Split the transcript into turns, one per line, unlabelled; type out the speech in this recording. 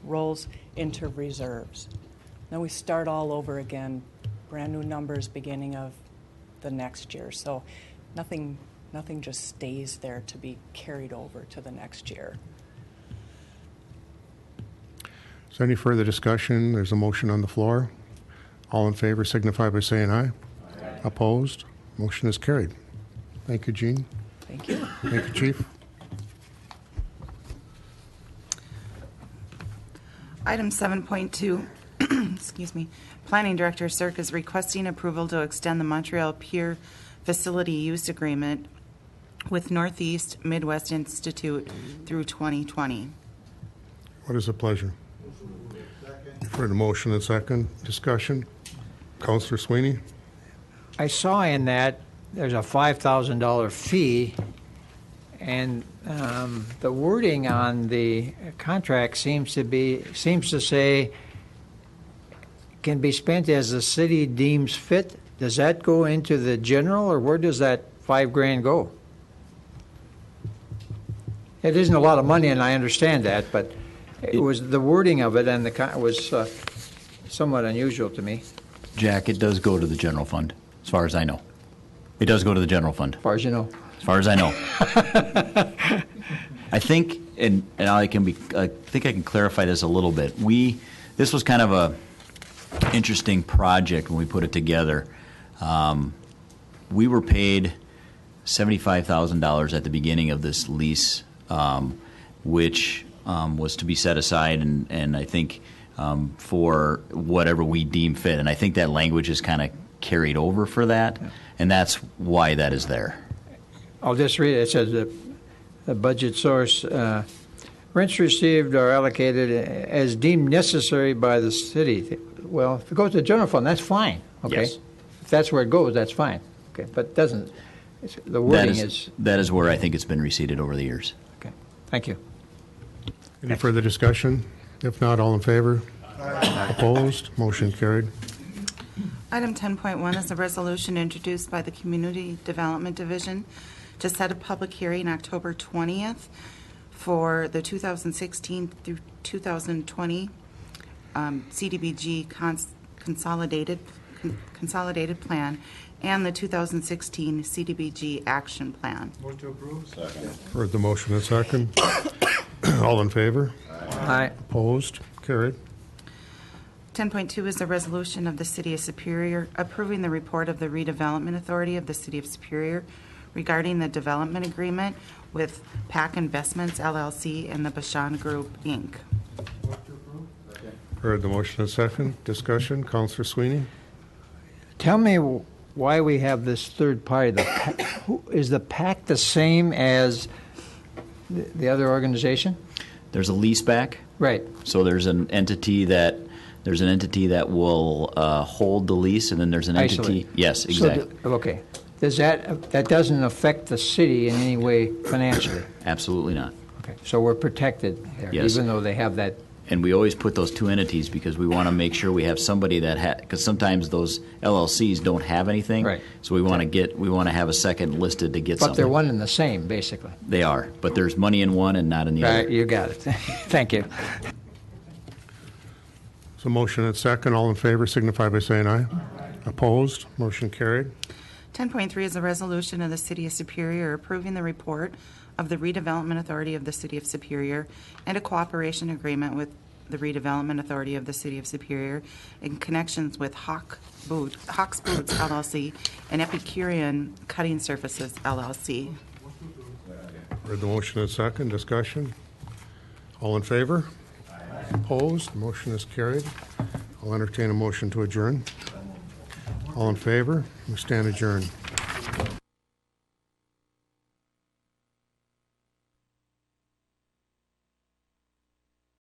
rolls into reserves. Then we start all over again, brand new numbers beginning of the next year. So nothing, nothing just stays there to be carried over to the next year.
Is there any further discussion? There's a motion on the floor. All in favor signify by saying aye. Opposed? Motion is carried. Thank you, Gene.
Thank you.
Thank you, Chief.
Item 7.2, excuse me, Planning Director Cirque is requesting approval to extend the Montreal Pier Facility Use Agreement with Northeast Midwest Institute through 2020.
What is the pleasure? You've heard the motion and second. Discussion? Counselor Sweeney?
I saw in that there's a five thousand dollar fee, and um, the wording on the contract seems to be seems to say can be spent as the city deems fit. Does that go into the general, or where does that five grand go? It isn't a lot of money, and I understand that, but it was the wording of it and the con- was uh, somewhat unusual to me.
Jack, it does go to the general fund, as far as I know. It does go to the general fund,
As far as you know.
as far as I know. I think, and, and I can be, I think I can clarify this a little bit. We, this was kind of a interesting project when we put it together. Um, we were paid seventy-five thousand dollars at the beginning of this lease, um, which um, was to be set aside, and, and I think um, for whatever we deem fit. And I think that language is kind of carried over for that, and that's why that is there.
I'll just read it. It says the, the budget source uh, rents received are allocated as deemed necessary by the city. Well, if it goes to the general fund, that's fine. Okay,
Yes.
if that's where it goes, that's fine. Okay, but it doesn't it's, the
That
wording
is,
is,
that is where I think it's been receded over the years.
okay? Thank you.
Any further discussion? If not, all in favor? Opposed? Motion carried.
Item 10.1 is a resolution introduced by the Community Development Division to set a public hearing October 20th for the 2016 through 2020 um, CDBG cons- consolidated, con- consolidated plan and the 2016 CDBG action plan.
Heard the motion and second. All in favor?
Aye.
Opposed? Carried.
10.2 is a resolution of the City of Superior approving the report of the redevelopment authority of the City of Superior regarding the development agreement with PAC Investments LLC and the Bashan Group, Inc.
Heard the motion and second. Discussion? Counselor Sweeney?
Tell me w- why we have this third party. The PAC, who, is the PAC the same as the, the other organization?
There's a lease back,
Right.
so there's an entity that there's an entity that will uh, hold the lease, and then there's an entity.
Isolate.
Yes,
So
exactly,
the- Okay. Does that, that doesn't affect the city in any way financially?
absolutely not.
Okay. So we're protected there,
Yes.
even though they have that,
And we always put those two entities because we want to make sure we have somebody that ha because sometimes those LLCs don't have anything.
Right.
So we want to get we want to have a second listed to get
but
something.
they're one and the same, basically.
They are, but there's money in one and not in the
Right,
other.
you got it. Thank you.
So motion and second. All in favor signify by saying aye. Opposed? Motion carried.
10.3 is a resolution of the City of Superior approving the report of the redevelopment authority of the City of Superior and a cooperation agreement with the redevelopment authority of the City of Superior in connections with Hawk Boot, Hawk's Boots LLC and Epicurean Cutting Surfaces LLC.
Heard the motion and second, discussion. All in favor? Opposed, motion is carried. I'll entertain a motion to adjourn. All in favor, we stand adjourned.